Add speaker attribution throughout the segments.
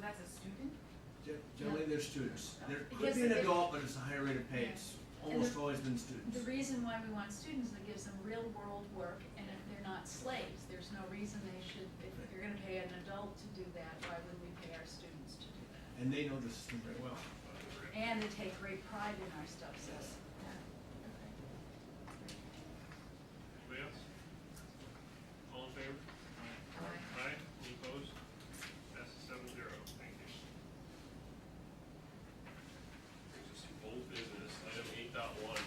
Speaker 1: that's a student?
Speaker 2: Gen- Generally, they're students. There could
Speaker 3: Because
Speaker 2: be an
Speaker 3: if-
Speaker 2: adult, but it's a higher rate of pay. It's almost always been students.
Speaker 3: The reason why we want students is it gives them real world work and if they're not slaves, there's no reason they should, if you're gonna pay an adult to do that, why would we pay our students to do that?
Speaker 2: And they know the system very well.
Speaker 3: And they take great pride in our stuff, so.
Speaker 4: Anybody else? All in favor? Aye, any opposed? Passes seven zero, thank you. Brings us to old business, item eight dot one,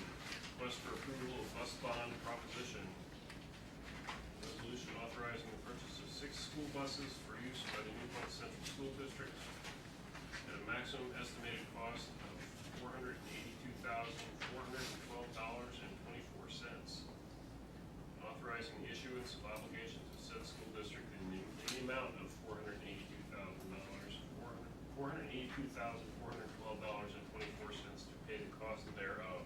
Speaker 4: request for approval of bus bond proposition. Resolution authorizing the purchase of six school buses for use by the Newport Central School District at a maximum estimated cost of four hundred and eighty-two thousand, four hundred and twelve dollars and twenty-four cents authorizing the issuance of obligations of said school district in the, in the amount of four hundred and eighty-two thousand dollars, four hundred, four hundred and eighty-two thousand, four hundred and twelve dollars and twenty-four cents to pay the cost thereof.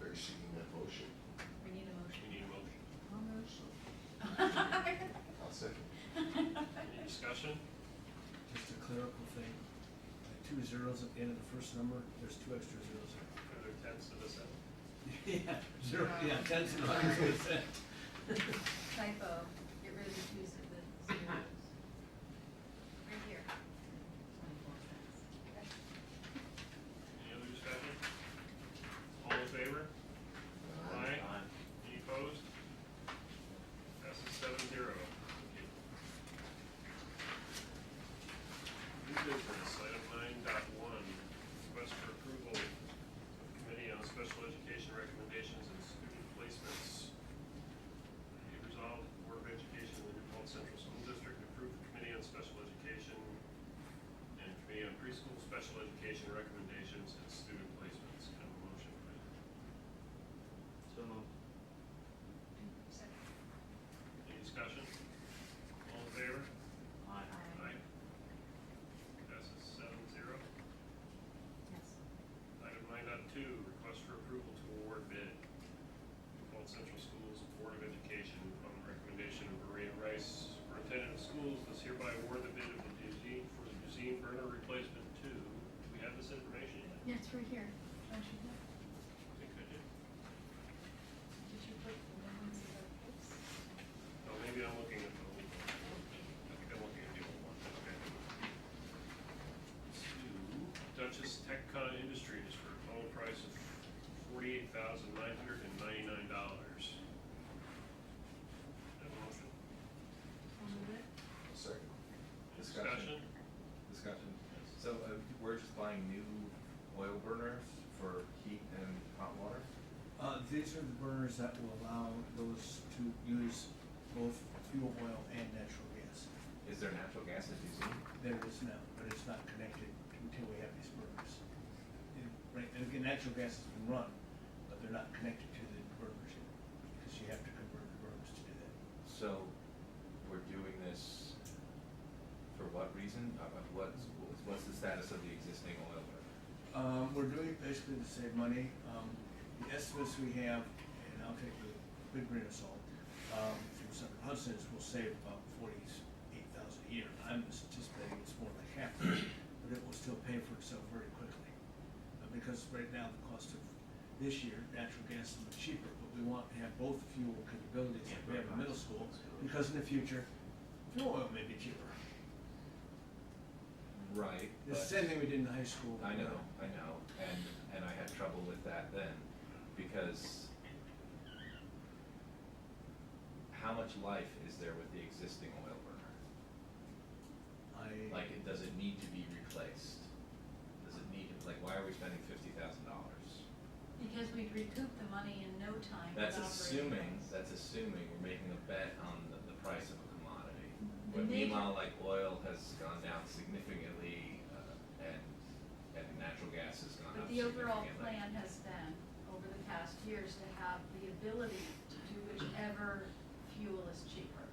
Speaker 5: They're seeking that motion.
Speaker 3: We need a
Speaker 4: We need a motion.
Speaker 3: motion.
Speaker 5: I'll second.
Speaker 4: Any discussion?
Speaker 2: Just a clerical thing. Like Two zeros at the end of the first number, there's two extra zeros there.
Speaker 4: Are there tens to this end?
Speaker 2: Yeah, zero, yeah, tens and hundreds of percent.
Speaker 3: Typo, get rid of the twos of the zeros. Right here.
Speaker 4: Any other discussion? All in favor? Aye. Any opposed? Passes seven zero. New business, item nine dot one, request for approval of committee on special education recommendations and student placements. Be it resolved, the Board of Education of the Newport Central School District approved the committee on special education and committee on preschool special education recommendations and student placements. Can I have a motion, please?
Speaker 6: So moved.
Speaker 4: Any discussion? All in favor?
Speaker 6: Aye.
Speaker 4: Aye. Passes seven zero. Item nine dot two, request for approval to award bid. Humboldt Central Schools Board of Education, on the recommendation of Maria Rice, Superintendent of Schools, does hereby award the bid of the museum for the museum burner replacement two. Do we have this information yet?
Speaker 3: Yeah, it's right here. Don't you know?
Speaker 4: I think I did.
Speaker 3: Did you put the new ones in the books?
Speaker 4: Oh, maybe I'm looking at the old one. I think I'm looking at the old one, okay. To Duchess TechCon Industries for a total price of forty-eight thousand nine hundred and ninety-nine dollars. Have a motion?
Speaker 5: I'll second.
Speaker 4: Discussion?
Speaker 7: Discussion. Discussion. So uh, we're just buying new oil burners for heat and hot water?
Speaker 2: Uh, these are the burners that will allow those to use both fuel oil and natural gas.
Speaker 7: Is there natural gas at museum?
Speaker 2: There is now, but it's not connected until we have these burners. And, right, and again, natural gas has been run, but they're not connected to the burners yet, because you have to convert the burners to do that.
Speaker 7: So we're doing this for what reason? Uh, uh, What's, what's the status of the existing oil burner?
Speaker 2: Um, we're doing it basically to save money. Um, the estimates we have, and I'll take the big grain of salt, um, from Senator Hudson's, will save about forty-eight thousand a year. I'm anticipating it's more like half, that, but it will still pay for itself very quickly. Uh, Because right now, the cost of this year, natural gas is much cheaper, but we want to have both fuel capabilities that we have in middle school, because in the future, fuel oil may be cheaper.
Speaker 7: Right.
Speaker 2: The
Speaker 7: but-
Speaker 2: same thing we did in high school.
Speaker 7: I
Speaker 2: you
Speaker 7: know, I know, and, and I had trouble with that then, because how much life is there with the existing oil burner?
Speaker 2: I.
Speaker 7: Like, it, does it need to be replaced? Does it need, like, why are we spending fifty thousand dollars?
Speaker 3: Because we'd recoup the money in no time.
Speaker 7: That's
Speaker 3: with operating
Speaker 7: assuming,
Speaker 3: costs.
Speaker 7: that's assuming we're making a bet on the, the price of a commodity.
Speaker 3: The
Speaker 7: But
Speaker 3: major-
Speaker 7: meanwhile, like, oil has gone down significantly, uh, and, and natural gas has gone
Speaker 3: But
Speaker 7: up
Speaker 3: the overall
Speaker 7: significantly.
Speaker 3: plan has been, over the past years, to have the ability to do whichever fuel is cheaper.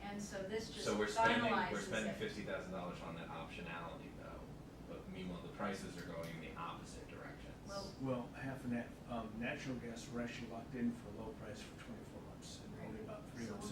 Speaker 3: And so this just
Speaker 7: So we're spending,
Speaker 3: finalizes
Speaker 7: we're spending
Speaker 3: it.
Speaker 7: fifty thousand dollars on that optionality though, but meanwhile, the prices are going in the opposite directions.
Speaker 3: Well-
Speaker 2: Well, half and half, um, natural gas, we're actually locked in for a low price for twenty-four months, and only about three
Speaker 3: So
Speaker 2: months